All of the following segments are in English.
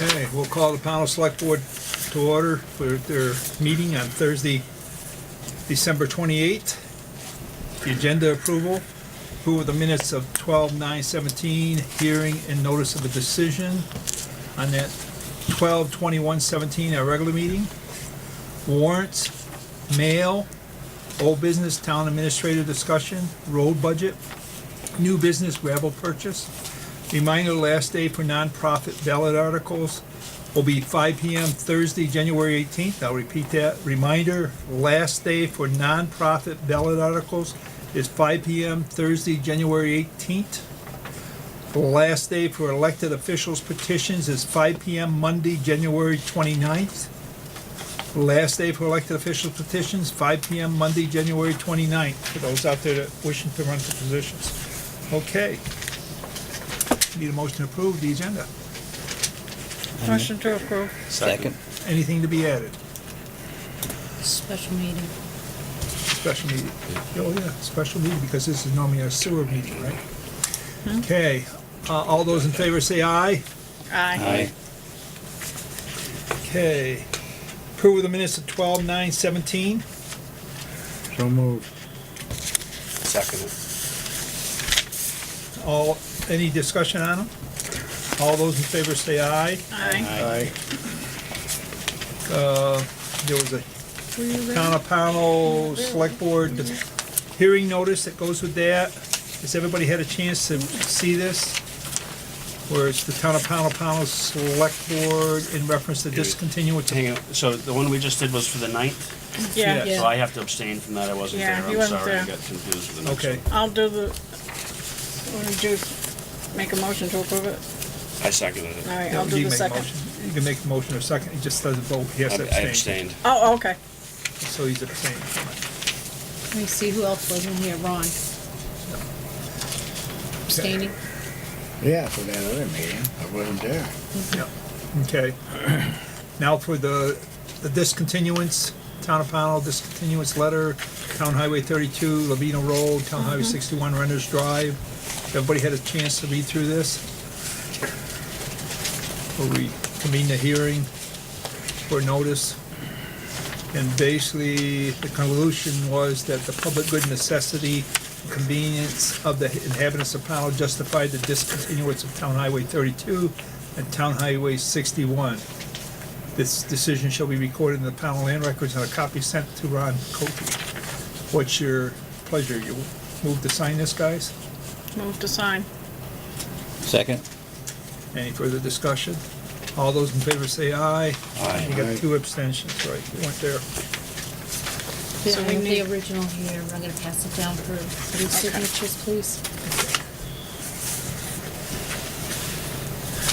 Okay, we'll call the panel select board to order for their meeting on Thursday, December 28th. The agenda approval, approval of the minutes of 12/9/17, hearing and notice of a decision on that 12/21/17, our regular meeting. Warrants, mail, old business, town administrative discussion, road budget, new business gravel purchase. Reminder, last day for nonprofit ballot articles will be 5 PM Thursday, January 18th. I'll repeat that. Reminder, last day for nonprofit ballot articles is 5 PM Thursday, January 18th. The last day for elected officials petitions is 5 PM Monday, January 29th. The Last day for elected officials petitions, 5 PM Monday, January 29th, for those out there that wishing to run for positions. Okay. Need a motion to approve the agenda. Motion to approve. Second. Anything to be added? Special meeting. Special meeting. Oh, yeah, special meeting, because this is normally a sewer meeting, right? Okay, uh, all those in favor say aye. Aye. Okay. Approve of the minutes of twelve nine seventeen. So moved. Second. All, any discussion on them? All those in favor say aye. Aye. Aye. There was a town of panel select board hearing notice that goes with that. Has everybody had a chance to see this? Where it's the town of panel panel select board in reference to discontinuance. of- Hang on, so the one we just did was for the ninth, Yeah. Yeah, so I have to abstain from that, I wasn't Yeah, there, you I'm wasn't sorry, I there. got confused with the next Okay, one. I'll do the, what do we do? Make a motion to approve it? I seconded it. All right, I'll you can do the make a second. motion, you can make a motion or second, he just doesn't vote, he has to I I abstain. abstained. Oh, okay. So he's abstaining. from it. Let me see who else was in here, Ron. Abstaining? Yeah, for that other meeting. I wasn't there. Yep, okay. Now for the, the discontinuance, Town of Pownell discontinuance letter, Town Highway thirty-two, Lavina Road, Town Highway sixty-one, Renner's Drive. Everybody had a chance to read through this? We'll reconvene the hearing for notice. And basically, the conclusion was that the public good necessity, convenience of the inhabitants of Pownell justified the discontinuance of Town Highway 32 and Town Highway 61. This decision shall be recorded in the Pownell Land Records and a copy sent to Ron Cokie. What's your pleasure? You move to sign this, guys? Move to sign. Second. Any further discussion? All those in favor say aye. Aye. You got Aye. two abstentions, right? You weren't there. So we The the need- original here, I'm gonna pass it down for three signatures, please.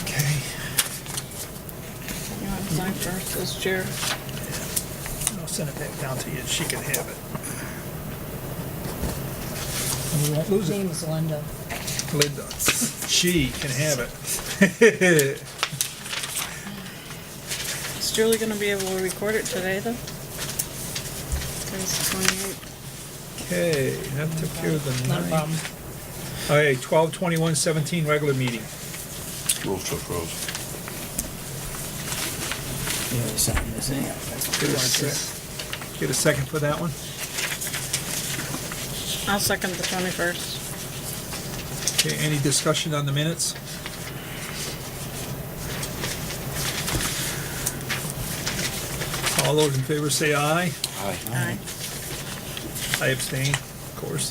Okay. You want to sign first as chair? I'll send it back down to you, and she can have it. And we won't lose His it. name is Linda. Linda. She can have it. Is Julie gonna be able to record it today, though? Today's the 28th. Okay, that took care of the Not a nine. problem. Okay, twelve twenty-one seventeen, regular meeting. Move to approve. Get a sec- get a second for that one? I'll second the 21st. Okay, any discussion on the minutes? All those in favor say aye. Aye. Aye. I abstain, of course.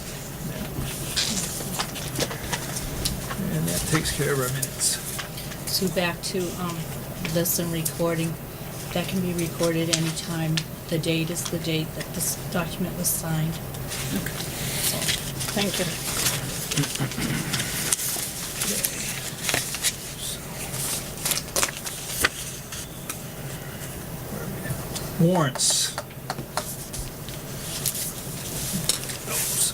And that takes care of our minutes. So back to, um, this and recording. That can be recorded anytime. The date is the date that this document was signed. Thank you. Warrants. Those.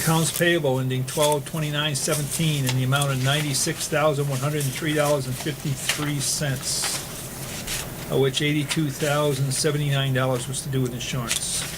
Accounts payable ending twelve twenty-nine seventeen in the amount of ninety-six thousand, one hundred and three dollars and fifty-three cents, of which eighty-two thousand, seventy-nine dollars was to do with insurance.